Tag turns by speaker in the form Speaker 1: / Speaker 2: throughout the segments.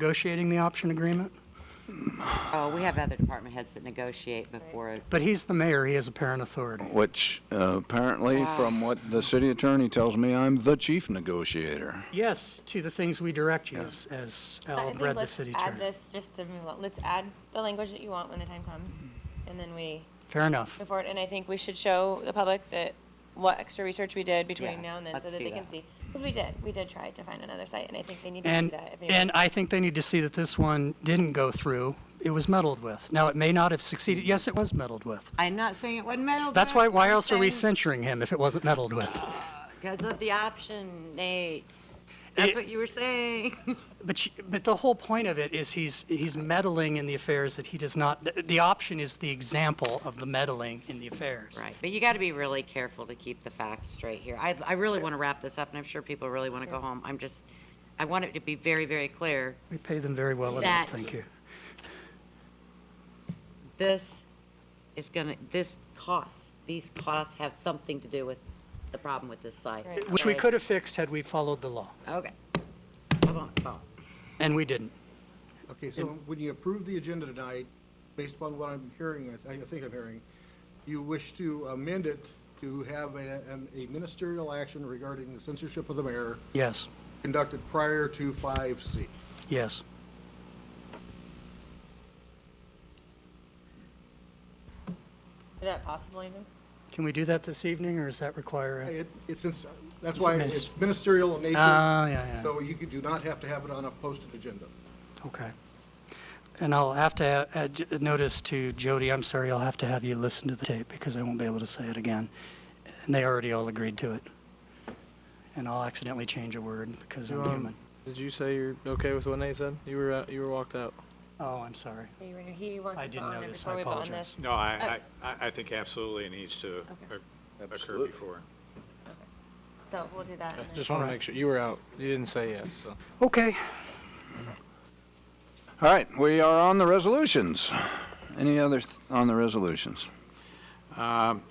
Speaker 1: negotiating the option agreement,
Speaker 2: Oh, we have other department heads that negotiate before.
Speaker 1: but he's the mayor, he has apparent authority.
Speaker 3: Which uh, apparently,
Speaker 2: Wow.
Speaker 3: from what the city attorney tells me, I'm the chief negotiator.
Speaker 1: Yes, to the things we direct you, as- as
Speaker 4: I
Speaker 1: Al
Speaker 4: think
Speaker 1: read the
Speaker 4: let's
Speaker 1: city
Speaker 4: Add
Speaker 1: attorney.
Speaker 4: this just to move on. Let's add the language that you want when the time comes, and then we
Speaker 1: Fair enough.
Speaker 4: move forward. And I think we should show the public that what extra research we did
Speaker 2: Yeah,
Speaker 4: between now and then, so
Speaker 2: let's
Speaker 4: that
Speaker 2: do
Speaker 4: they can
Speaker 2: that.
Speaker 4: see. Because we did, we did try to find another site, and I think they need to see
Speaker 1: And,
Speaker 4: that. if anyone-
Speaker 1: and I think they need to see that this one didn't go through, it was meddled with. Now, it may not have succeeded, yes, it was meddled with.
Speaker 2: I'm not saying it wasn't metal.
Speaker 1: That's why, why else are we censuring him if it wasn't meddled with?
Speaker 2: Because of the option, Nate.
Speaker 1: It-
Speaker 2: That's what you were saying.
Speaker 1: But, she- but the whole point of it is he's, he's meddling in the affairs that he does not, the- the option is the example of the meddling in the affairs.
Speaker 2: Right, but you got to be really careful to keep the facts straight here. I, I really want to wrap this up, and I'm sure people really want to go home. I'm just, I want it to be very, very clear.
Speaker 1: We pay them very well enough,
Speaker 2: That-
Speaker 1: thank you.
Speaker 2: This is gonna, this costs, these costs have something to do with the problem with this site.
Speaker 4: Right.
Speaker 1: Which we could have fixed had we followed the law,
Speaker 2: Okay. Come on, come on.
Speaker 1: and we didn't.
Speaker 5: Okay, so when you approve the agenda tonight, based upon what I'm hearing, I thi- I think I'm hearing, you wish to amend it to have a an- a ministerial action regarding the censorship of the mayor
Speaker 1: Yes,
Speaker 5: conducted prior to 5C.
Speaker 1: yes.
Speaker 4: Is that possible even?
Speaker 1: Can we do that this evening, or does that require? a-
Speaker 5: It- It's, since- that's
Speaker 1: It's
Speaker 5: why
Speaker 1: minis-
Speaker 5: it's ministerial in nature,
Speaker 1: Ah, yeah, yeah,
Speaker 5: so you could- do not have to have it on a posted agenda.
Speaker 1: okay. And I'll have to add- add j- notice to Jody, I'm sorry, I'll have to have you listen to the tape, because I won't be able to say it again. And they already all agreed to it. And I'll accidentally change a word, because I'm
Speaker 6: Um,
Speaker 1: human.
Speaker 6: Did you say you're okay with what Nate said? You were out, you were walked out.
Speaker 1: Oh, I'm sorry.
Speaker 4: He were- He wants
Speaker 1: I
Speaker 4: to
Speaker 1: didn't
Speaker 4: vote on it
Speaker 1: notice.
Speaker 4: before
Speaker 1: I
Speaker 4: we vote on
Speaker 1: apologize.
Speaker 4: this.
Speaker 7: No, I, I, I think absolutely it needs to
Speaker 4: Okay.
Speaker 7: occur before.
Speaker 4: So we'll do that. and then-
Speaker 6: Just want to
Speaker 1: Alright.
Speaker 6: make sure you were out. You didn't say yes. So.
Speaker 1: Okay.
Speaker 3: All right, we are on the resolutions. Any other th- on the resolutions?
Speaker 7: Um,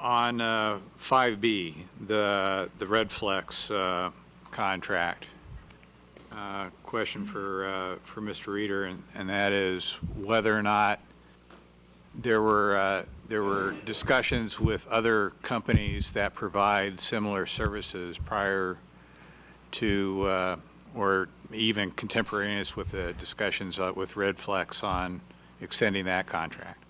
Speaker 7: On uh, 5B, the, the Red Flex uh, contract, uh, question for, uh, for Mr. Reader, and and that is whether or not there were, uh, there were discussions with other companies that provide similar services prior to, uh, or even contemporaneous with the discussions uh, with Red Flex on extending that contract.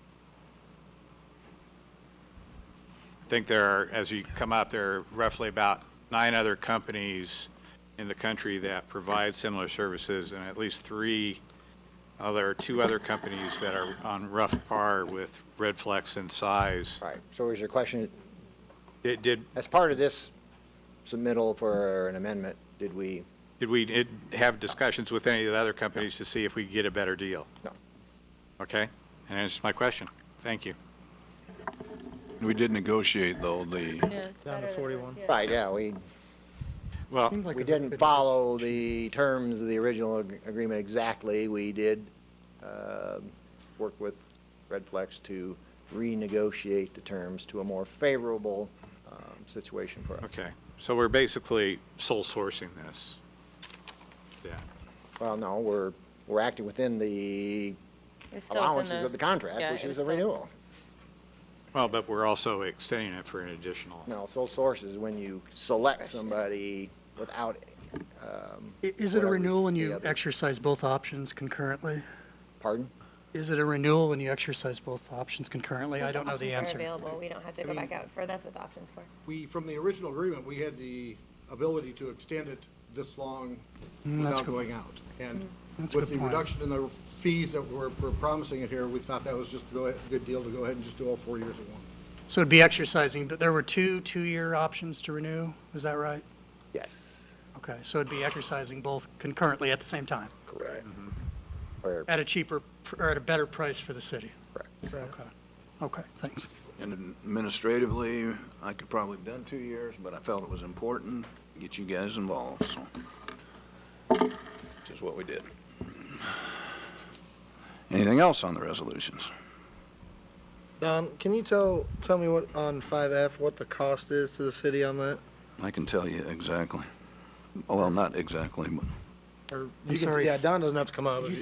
Speaker 7: I think there are, as you come up, there are roughly about nine other companies in the country that provide similar services, and at least three other, two other companies that are on rough par with Red Flex in size.
Speaker 8: Right, so was your question,
Speaker 7: Did, did
Speaker 8: as part of this submittal for an amendment, did we,
Speaker 7: did we did have discussions with any of the other companies to see if we could get a better deal?
Speaker 8: No.
Speaker 7: Okay, and that's my question. Thank you.
Speaker 3: We did negotiate, though, the,
Speaker 6: Down to 41.
Speaker 8: right, yeah, we,
Speaker 7: Well,
Speaker 8: Uh, we didn't follow the terms of the original ag- agreement exactly. We did um, work with Red Flex to renegotiate the terms to a more favorable um, situation for us.
Speaker 7: okay, so we're basically sole sourcing this.
Speaker 8: Well, no, we're, we're acting within the
Speaker 4: It was still within
Speaker 8: allowances of the
Speaker 4: yeah,
Speaker 8: contract, which
Speaker 4: it was
Speaker 8: is the
Speaker 4: still-
Speaker 8: renewal.
Speaker 7: Well, but we're also extending it for an additional.
Speaker 8: No, sole source is when you select somebody without
Speaker 1: I- Is it a
Speaker 8: Whatever
Speaker 1: renewal when
Speaker 8: the
Speaker 1: you
Speaker 8: other-
Speaker 1: exercise both options concurrently?
Speaker 8: Pardon?
Speaker 1: Is it a renewal when you exercise both options concurrently? I
Speaker 4: If
Speaker 1: don't know the answer.
Speaker 4: options are available, we don't have to
Speaker 5: I
Speaker 4: go
Speaker 5: mean-
Speaker 4: back out for, that's what the option's for.
Speaker 5: We, from the original agreement, we had the ability to extend it this long
Speaker 1: Mm, that's
Speaker 5: without
Speaker 1: good.
Speaker 5: going out. And
Speaker 1: That's a
Speaker 5: with
Speaker 1: good
Speaker 5: the
Speaker 1: point.
Speaker 5: reduction in the fees that we're we're promising it here, we thought that was just a go- a good deal to go ahead and just do all four years at once.
Speaker 1: So it'd be exercising, but there were two two-year options to renew, is that right?
Speaker 8: Yes.
Speaker 1: Okay, so it'd be exercising both concurrently at the same time,
Speaker 8: Correct. Or
Speaker 1: at a cheaper, pr- or at a better price for the city?
Speaker 8: Correct.
Speaker 1: Okay, okay, thanks.
Speaker 3: and administratively, I could probably have done two years, but I felt it was important to get you guys involved, so. Which is what we did. Anything else on the resolutions?
Speaker 6: Don, can you tell tell me what on 5F what the cost is to the city on that?
Speaker 3: I can tell you exactly. Well, not exactly, but
Speaker 6: or you
Speaker 1: I'm
Speaker 6: can-
Speaker 1: sorry.
Speaker 6: yeah,
Speaker 1: Yeah, Don doesn't have to come up.
Speaker 6: Did you
Speaker 1: if